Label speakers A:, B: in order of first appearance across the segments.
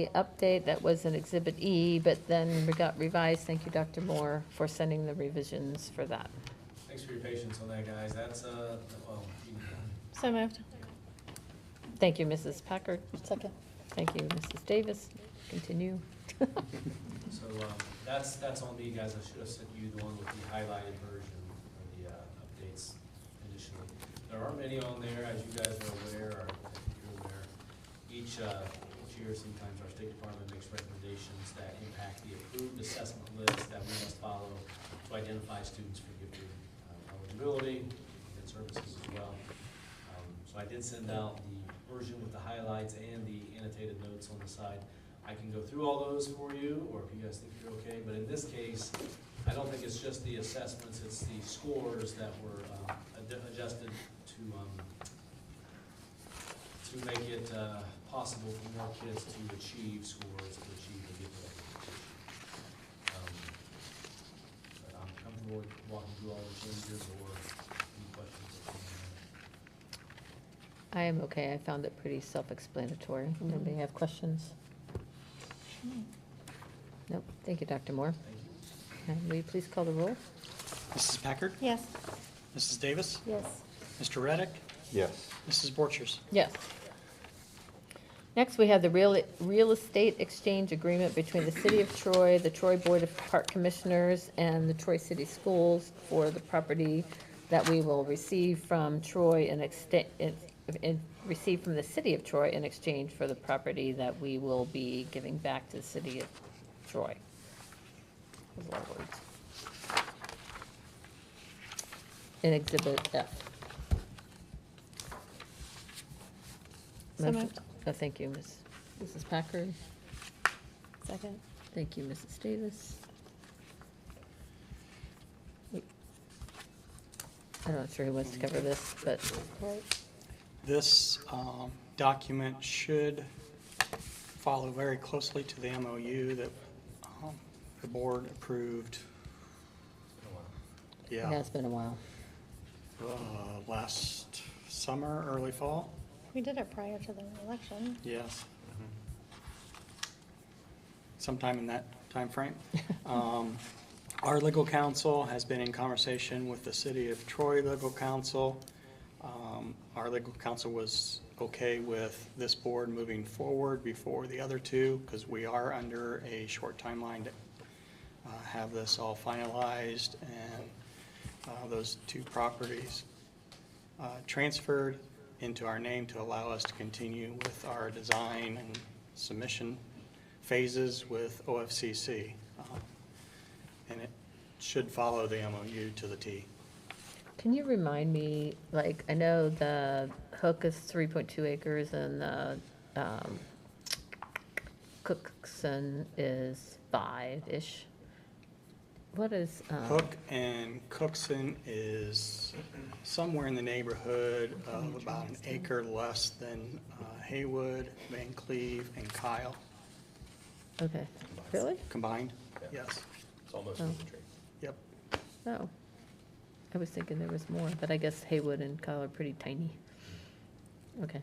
A: The update, that was an Exhibit E, but then we got revised. Thank you, Dr. Moore, for sending the revisions for that.
B: Thanks for your patience on that, guys. That's, uh, well, you can go.
C: So moved.
A: Thank you, Mrs. Packard.
C: Second.
A: Thank you, Mrs. Davis. Continue.
B: so, um, that's, that's on me, guys. I should have sent you the one with the highlighted version of the, uh, updates initially. There are many on there, as you guys are aware, or I think you're aware. Each, uh, each year, sometimes our State Department makes recommendations that impact the approved assessment list that we must follow to identify students for gifted uh, eligibility and services as well. Um, So I did send out the version with the highlights and the annotated notes on the side. I can go through all those for you, or if you guys think you're okay, but in this case, I don't think it's just the assessments, it's the scores that were uh, ad- adjusted to, um, to make it uh, possible for more kids to achieve scores, to achieve a good level. Um, But I'm comfortable with walking through all the changes or any questions. that you may
A: I am okay. I found it pretty self-explanatory. Anybody have questions? Nope. Thank you, Dr. Moore.
B: have. Thank you.
A: And will you please call the roll?
D: Mrs. Packard?
C: Yes.
D: Mrs. Davis?
C: Yes.
D: Mr. Reddick?
E: Yes.
D: Mrs. Borchers?
A: Yes. Next, we have the real, real estate exchange agreement between the City of Troy, the Troy Board of Park Commissioners, and the Troy City Schools for the property that we will receive from Troy and extend, and receive from the City of Troy in exchange for the property that we will be giving back to the City of Troy. Those are our words. In Exhibit F.
C: So
A: Motion-
C: moved.
A: Oh, thank you, Ms. Mrs. Packard.
C: Second.
A: Thank you, Mrs. Davis. We- I'm not sure who wants to cover this, but
C: Right.
D: This um, document should follow very closely to the MOU that um, the board approved,
A: it
D: yeah,
A: has been a while.
D: uh, last summer, early fall,
C: We did it prior to the election.
D: yes. Sometime in that timeframe. Um, Our legal counsel has been in conversation with the city of Troy legal counsel. Um, Our legal counsel was okay with this board moving forward before the other two, because we are under a short timeline to uh, have this all finalized and uh, those two properties uh, transferred into our name to allow us to continue with our design and submission phases with OFCC. Um, and it should follow the MOU to the T.
A: Can you remind me, like, I know the Hook is 3.2 acres and the um, Cookson is five-ish. What is? um,
D: Hook and Cookson is somewhere in the neighborhood of about an acre less than uh, Haywood, Van Cleve, and Kyle
A: Okay, really?
D: combined.
E: Yeah.
D: Yes,
E: It's almost
A: Oh.
E: in the tree.
D: yep.
A: Oh, I was thinking there was more, but I guess Haywood and Kyle are pretty tiny. Okay,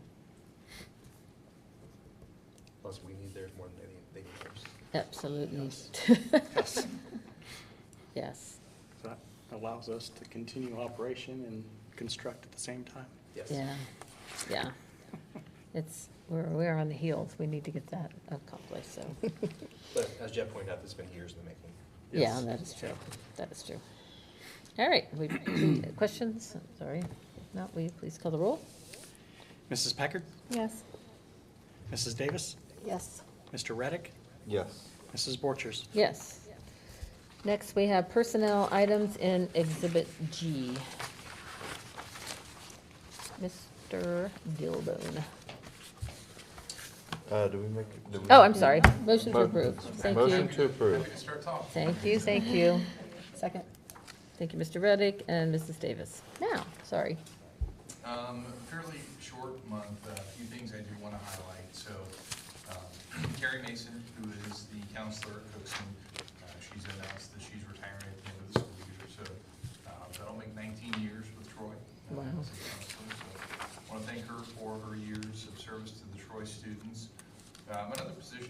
E: Plus, we need theirs more than any- they need theirs.
A: absolutely.
D: Yes.
A: Yes,
D: That allows us to continue operation and construct at the same time.
E: Yes.
A: yeah, yeah. It's, we're, we're on the heels. We need to get that accomplished, so.
E: But as Jeff pointed out, this has been years in the making.
A: Yeah,
D: Yes.
A: that is true. That is true. All right, we, questions? Sorry. If not, will you please call the roll?
D: Mrs. Packard?
C: Yes.
D: Mrs. Davis?
C: Yes.
D: Mr. Reddick?
E: Yes.
D: Mrs. Borchers?
A: Yes. Next, we have personnel items in Exhibit G. Mr. Gilbone.
F: Uh, do we make? do we-
A: Oh, I'm sorry. Motion to
F: Mo-
A: approve. Thank
F: Motion to
A: you.
F: approve.
A: Thank you, thank you.
C: Second.
A: Thank you, Mr. Reddick and Mrs. Davis. Now, sorry.
G: Um, fairly short month, a few things I do want to highlight. So um, Carrie Mason, who is the counselor at Cookson, uh, she's announced that she's retiring at the end of the school year. So uh, that'll make 19 years with Troy. uh,
A: Wow.
G: as a counselor. So I want to thank her for her years of service to the Troy students. Um, Another position